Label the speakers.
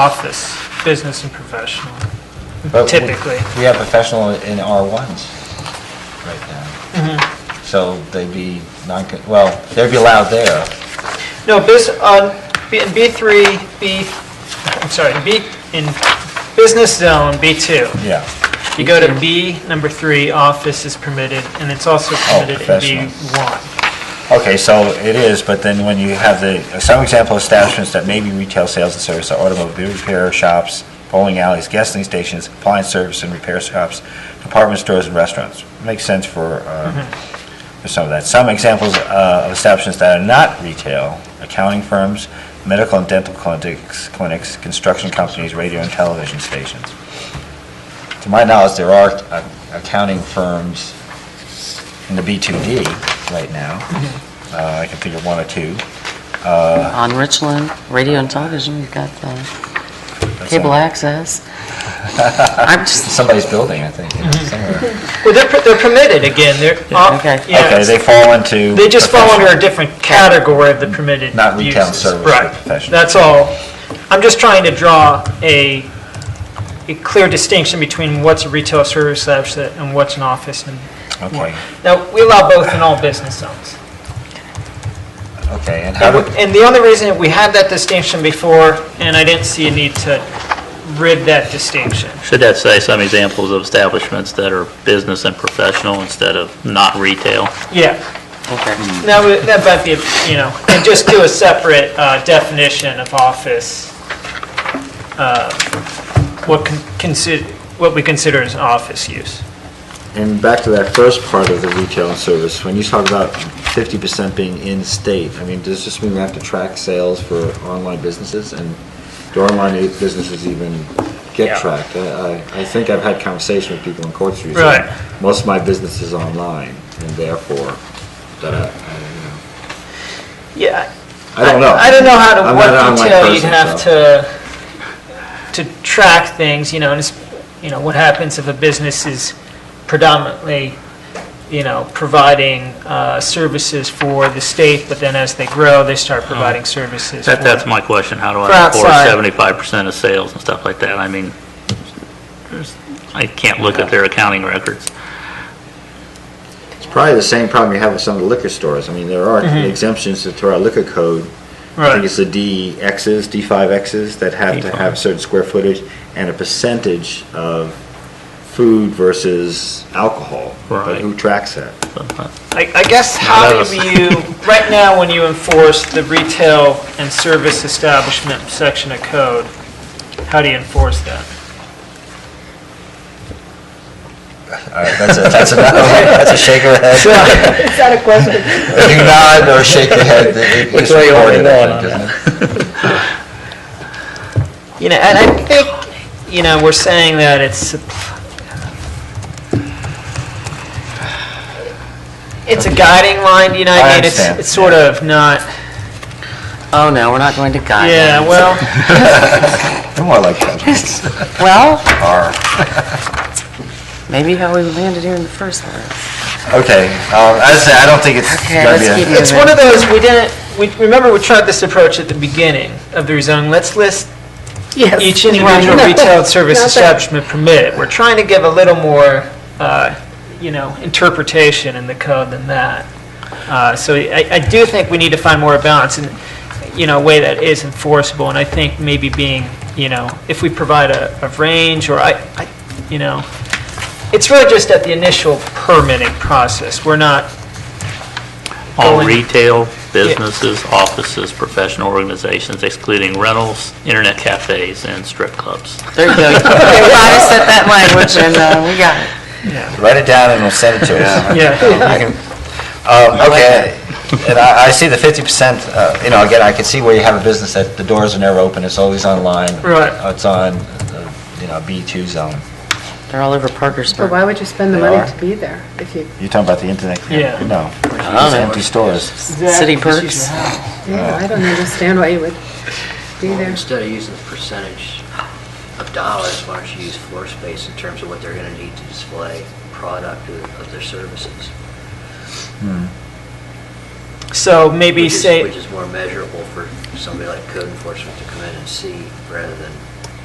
Speaker 1: office, business and professional,
Speaker 2: But we-
Speaker 1: typically.
Speaker 2: We have professional in R1s right now. So they'd be non, well, they'd be allowed there.
Speaker 1: No, bus, on, B- in B3, B, I'm sorry, in B, in business zone, B2,
Speaker 2: Yeah.
Speaker 1: you go to B, number three, office is permitted, and it's also permitted in
Speaker 2: Oh, professional.
Speaker 1: B1.
Speaker 2: Okay, so it is, but then when you have the, some example establishments that may be retail sales and service are automobile repair shops, bowling alleys, gasoline stations, appliance service and repair shops, department stores and restaurants. Makes sense for, uh, for some of that. Some examples uh, of establishments that are not retail, accounting firms, medical and dental clinics, clinics, construction companies, radio and television stations. To my knowledge, there are uh, accounting firms in the B2D right now. Uh, I can think of one or two.
Speaker 3: On Richland, radio and television, you've got the
Speaker 2: That's
Speaker 3: cable
Speaker 2: on-
Speaker 3: access. I'm just,
Speaker 2: Somebody's building, I think, you know,
Speaker 1: Mm-hmm.
Speaker 2: somewhere.
Speaker 1: Well, they're, per- they're permitted, again, they're, off-
Speaker 3: okay.
Speaker 2: Okay,
Speaker 1: yeah,
Speaker 2: they fall into.
Speaker 1: they just fall under a
Speaker 2: professional.
Speaker 1: different category of the permitted
Speaker 2: Not retail
Speaker 1: uses.
Speaker 2: service, but
Speaker 1: Right,
Speaker 2: professional.
Speaker 1: that's all. I'm just trying to draw a, a clear distinction between what's a retail service establishment and what's an office and
Speaker 2: Okay,
Speaker 1: Now, we allow both in all business zones.
Speaker 2: okay, and how do,
Speaker 1: And the only reason we had that distinction before, and I didn't see a need to rid that distinction.
Speaker 4: Should that say some examples of establishments that are business and professional instead of not retail?
Speaker 1: Yeah,
Speaker 3: okay.
Speaker 1: that would, that might be, you know, and just do a separate uh, definition of office. uh, What consider, what we consider as office use.
Speaker 2: and back to that first part of the retail and service, when you talk about fifty percent being in-state, I mean, does this mean we have to track sales for online businesses? And do online e- businesses even
Speaker 1: Yeah.
Speaker 2: get tracked? I, I- I think I've had conversation with people in Court Street. saying,
Speaker 1: Right.
Speaker 2: Most of my business is online, and therefore, that I, I, you know.
Speaker 1: Yeah.
Speaker 2: I don't know.
Speaker 1: I don't know how to,
Speaker 2: I'm not
Speaker 1: what
Speaker 2: an online
Speaker 1: detail you'd
Speaker 2: person,
Speaker 1: have
Speaker 2: so.
Speaker 1: to, to track things, you know, and it's, you know, what happens if a business is predominantly, you know, providing uh, services for the state, but then as they grow, they start
Speaker 2: Uh-huh.
Speaker 1: providing services.
Speaker 4: That,
Speaker 1: for-
Speaker 4: that's my question, how do
Speaker 1: For
Speaker 4: I report
Speaker 1: outside.
Speaker 4: seventy-five percent of sales and stuff like that? I mean, there's- I can't look at their accounting records.
Speaker 2: It's probably the same problem you have with some of the liquor stores. I mean, there are exemptions to our liquor code. I think
Speaker 1: Right,
Speaker 2: it's the DXs, D5Xs that have to have
Speaker 4: D5.
Speaker 2: certain square footage and a percentage of food versus alcohol. But
Speaker 4: Right.
Speaker 2: who tracks that?
Speaker 1: I, I guess
Speaker 4: Not
Speaker 1: how
Speaker 4: us.
Speaker 1: do you, right now, when you enforce the retail and service establishment section of code, how do you enforce that?
Speaker 2: That's a, that's a, that's a shake of the head.
Speaker 5: Is that a question?
Speaker 2: You nod or shake your head. Which way you want to
Speaker 1: You know, and I think, you know, we're saying that it's, it's a guiding line, you know,
Speaker 2: I
Speaker 1: I mean, it's,
Speaker 2: understand.
Speaker 1: it's sort of not,
Speaker 3: Oh, no, we're not going to guide.
Speaker 1: yeah, well,
Speaker 2: They're more like that.
Speaker 3: Well,
Speaker 2: Are.
Speaker 3: maybe how we landed here in the first place.
Speaker 2: Okay, um, as I said, I don't think it's
Speaker 3: Okay,
Speaker 2: gonna
Speaker 3: let's
Speaker 2: be a-
Speaker 3: keep moving.
Speaker 1: it's one of those, we didn't, we, remember, we tried this approach at the beginning of the rezoning, let's list
Speaker 3: Yes.
Speaker 1: each individual
Speaker 3: Right.
Speaker 1: retail service
Speaker 3: Not that-
Speaker 1: establishment permit. We're trying to give a little more, uh, you know, interpretation in the code than that. Uh, So I I do think we need to find more balance and, you know, a way that is enforceable. And I think maybe being, you know, if we provide a a range or I, I- you know, it's really just at the initial permitting process. We're not,
Speaker 4: All
Speaker 1: Going-
Speaker 4: retail, businesses, offices, professional organizations excluding rentals, internet cafes, and strip clubs.
Speaker 3: There you go. You guys set that language and uh, we got it.
Speaker 2: Write it down and we'll send it to us.
Speaker 1: yeah,
Speaker 2: Um, Okay, and I, I see the fifty percent, uh, you know, again, I can see where you have a business that the doors are never open, it's always online.
Speaker 1: Right.
Speaker 2: Uh, It's on, uh, you know, B two zone.
Speaker 3: They're all over
Speaker 5: But
Speaker 3: Parkersburg.
Speaker 5: why would you spend the
Speaker 2: They
Speaker 5: money
Speaker 2: are.
Speaker 5: to be there if you,
Speaker 2: You're talking about the internet?
Speaker 1: Yeah.
Speaker 2: No,
Speaker 3: don't
Speaker 2: it's
Speaker 3: know.
Speaker 2: empty stores.
Speaker 3: City perks.
Speaker 2: Uh.
Speaker 5: yeah, I don't understand why you would be
Speaker 6: Well,
Speaker 5: there.
Speaker 6: Instead of using the percentage of dollars, why don't you use floor space in terms of what they're gonna need to display product of of their services?
Speaker 1: so maybe
Speaker 6: which is-
Speaker 1: say.
Speaker 6: Which is more measurable for somebody like code enforcement to come in and see rather than